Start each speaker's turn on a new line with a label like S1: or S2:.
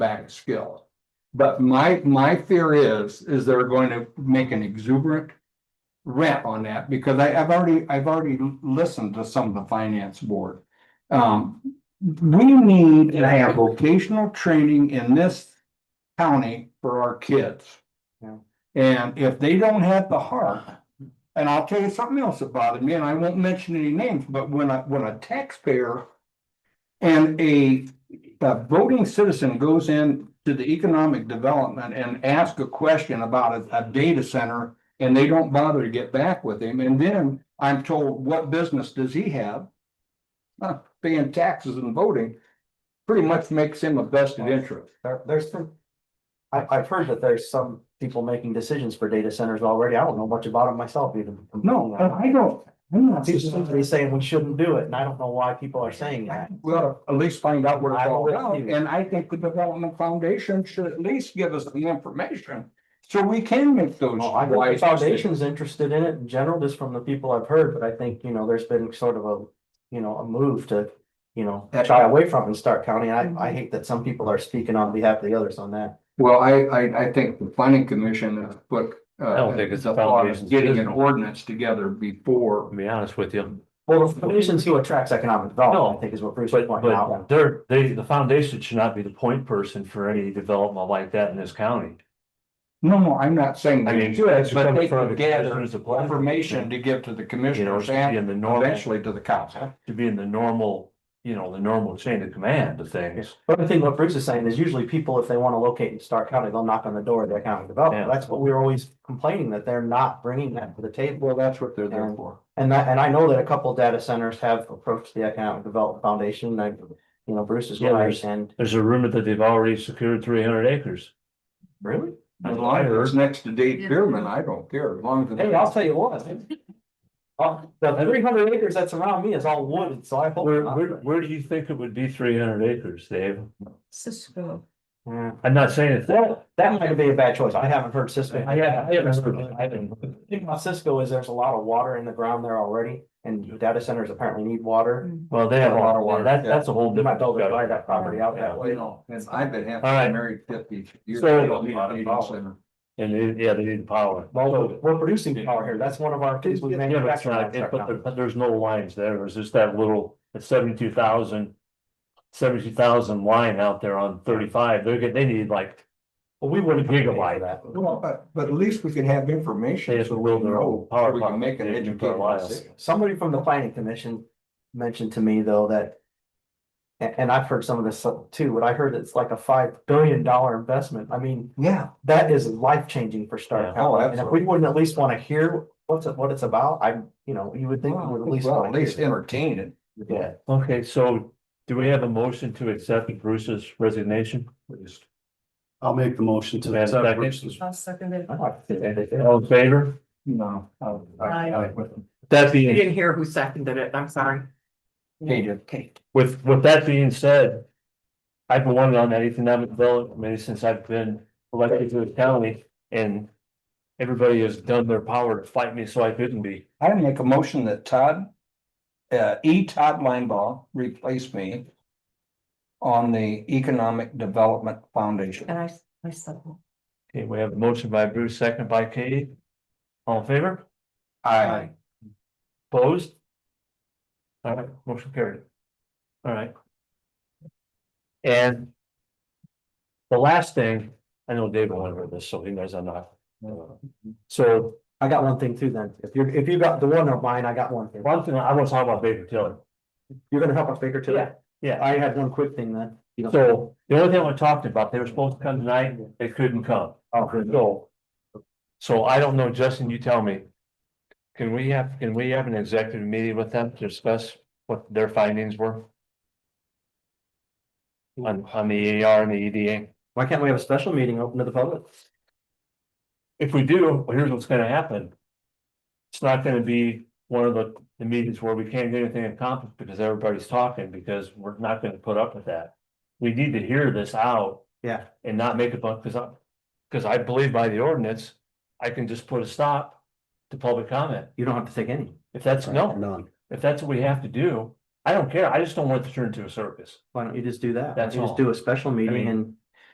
S1: back skill. But my, my fear is, is they're going to make an exuberant rant on that because I, I've already, I've already listened to some of the finance board. Um, we need to have vocational training in this county for our kids.
S2: Yeah.
S1: And if they don't have the heart, and I'll tell you something else that bothered me, and I won't mention any names, but when a, when a taxpayer and a, a voting citizen goes in to the economic development and ask a question about a, a data center and they don't bother to get back with him, and then I'm told, what business does he have? Huh, paying taxes and voting, pretty much makes him a vested interest.
S2: There, there's some. I, I've heard that there's some people making decisions for data centers already. I don't know much about it myself even.
S1: No, uh, and I don't, I'm not.
S2: They're saying we shouldn't do it and I don't know why people are saying that.
S1: We ought to at least find out what it's all
S2: I
S1: about,
S2: will.
S1: and I think the Development Foundation should at least give us the information. So we can make those
S2: Well, I know the
S1: wise decisions.
S2: foundation's interested in it in general, just from the people I've heard, but I think, you know, there's been sort of a, you know, a move to. You know,
S1: That's-
S2: shy away from it in Stark County. I, I hate that some people are speaking on behalf of the others on that.
S1: Well, I, I, I think the planning commission has put. uh,
S3: I don't think it's
S1: the
S3: the
S1: thought
S3: foundation's
S1: of Getting an
S3: decision.
S1: ordinance together
S3: to
S1: before,
S3: be honest with you,
S2: Well, the foundation's who attracts economic development,
S3: No,
S2: I think is what Bruce was
S3: but,
S2: pointing
S3: but
S2: out.
S3: they're, they, the foundation should not be the point person for any development like that in this county.
S1: no, no, I'm not saying.
S3: I
S1: they
S3: mean,
S1: should,
S3: that should
S1: But
S3: come
S1: they
S3: from
S1: can
S3: the
S1: gather
S3: commissioners of planning.
S1: information to give to the
S3: You know, it
S1: commissioners
S3: should be
S1: and
S3: in the normal,
S1: eventually to the council.
S3: to be in the normal, you know, the normal chain of command of things.
S2: But I think what Bruce is saying is usually people, if they want to locate in Stark County, they'll knock on the door of the economic development.
S3: Yeah.
S2: That's what we're always complaining that they're not bringing that to the table.
S1: Well, that's what they're there for.
S2: And that, and I know that a couple data centers have approached the Economic Development Foundation. and I, you know, Bruce is
S3: Yeah,
S2: right
S3: there's-
S2: and.
S3: There's a rumor that they've already secured three hundred acres.
S2: Really?
S1: As long as it's next to Dave Bierman, I don't care, as long as.
S2: Hey, I'll tell you what. Uh, the three hundred acres that's around me is all wooded, so I hope.
S3: Where, where, where do you think it would be three hundred acres, Dave?
S4: Cisco.
S2: Yeah.
S3: I'm not saying it's that.
S2: That, that might be a bad choice. I haven't heard Cisco.
S3: I, I I haven't heard it. I haven't.
S2: The thing about Cisco is there's a lot of water in the ground there already, and data centers apparently need water.
S3: Well, they have a lot of water. That, that's a whole
S2: They might
S3: different.
S2: be able to buy that property out that
S1: Well, you
S2: way.
S1: know, and I've been
S3: All right.
S1: happy, married fifty years.
S3: So-
S1: I don't need a dating center.
S3: And, it- yeah, they need power.
S2: Well, we're producing power here. That's one of our things we
S3: Yeah, but it's
S2: manufacture.
S3: not, it- but there- but there's no lines there, it's just that little, it's seventy-two thousand. Seventy-two thousand line out there on thirty-five, they're getting, they need like,
S2: Well, we wouldn't gigabyte
S3: Gigabyte.
S2: that.
S1: Well, but, but at least we can have information.
S3: They have
S1: so
S3: to
S1: we
S3: build their
S1: know,
S3: own
S1: so
S3: power
S1: We can
S3: plant.
S1: make an
S3: They do
S1: educated
S3: fertilizer.
S1: decision.
S2: Somebody from the planning commission mentioned to me though that. a- And, I've heard some of this too, but I heard it's like a five billion dollar investment. I mean,
S1: Yeah,
S2: that is life changing for
S3: Yeah.
S2: Stark
S1: Oh,
S2: County. And if we wouldn't at least want to hear what's, it- what it's about, I, you know, you would think we would at least.
S1: well,
S2: wanna
S1: at least
S2: hear.
S1: entertain it.
S2: Yeah.
S3: okay, so. Do we have a motion to accept Bruce's resignation?
S5: I'll make the motion to.
S3: Do we have a
S5: accept
S3: second?
S5: Bruce's-
S4: I'll second it.
S2: I like to say that.
S3: All in favor?
S1: No. I- I-
S3: That
S4: You
S3: being,
S4: didn't hear who seconded it, I'm sorry.
S1: Kate did.
S4: Okay.
S3: with, with that being said. I've been wondering on that economic development committee since I've been elected to the county and. Everybody has done their power to fight me so I couldn't be.
S1: I make a motion that Todd, uh, E. Todd Linebaugh replace me on the Economic Development Foundation.
S4: And I, I second.
S3: Okay, we have a motion by Bruce, second by Katie. All in favor?
S1: I,
S3: Opposed? All right, motion carried. All right. And. The last thing, I know David went over this, so he knows I'm not. uh, So
S2: I got one thing too then. If you, if you got the one of mine, I got one thing.
S3: one thing, I want to talk about Baker Tilly.
S2: You're gonna help us figure today?
S3: Yeah,
S2: I had one quick thing then. You know,
S3: so the only thing we're talking about, they were supposed to come tonight, they couldn't come. So. So I don't know, Justin, you tell me. Can we have, can we have an executive meeting with them to discuss what their findings were? On, on the E R and the E D A?
S2: Why can't we have a special meeting open to the public?
S3: If we do, well, here's what's gonna happen. It's not gonna be one of the, the meetings where we can't get anything accomplished because everybody's talking, because we're not gonna put up with that. We need to hear this out.
S2: Yeah.
S3: And not make a buck, cause I, cause I believe by the ordinance, I can just put a stop to public comment.
S2: You don't have to take any.
S3: If that's, no,
S5: None.
S3: if that's what we have to do, I don't care, I just don't want it to turn into a circus.
S2: Why don't you just do that?
S3: That's
S2: You just
S3: all.
S2: do a special
S3: mean-
S2: meeting and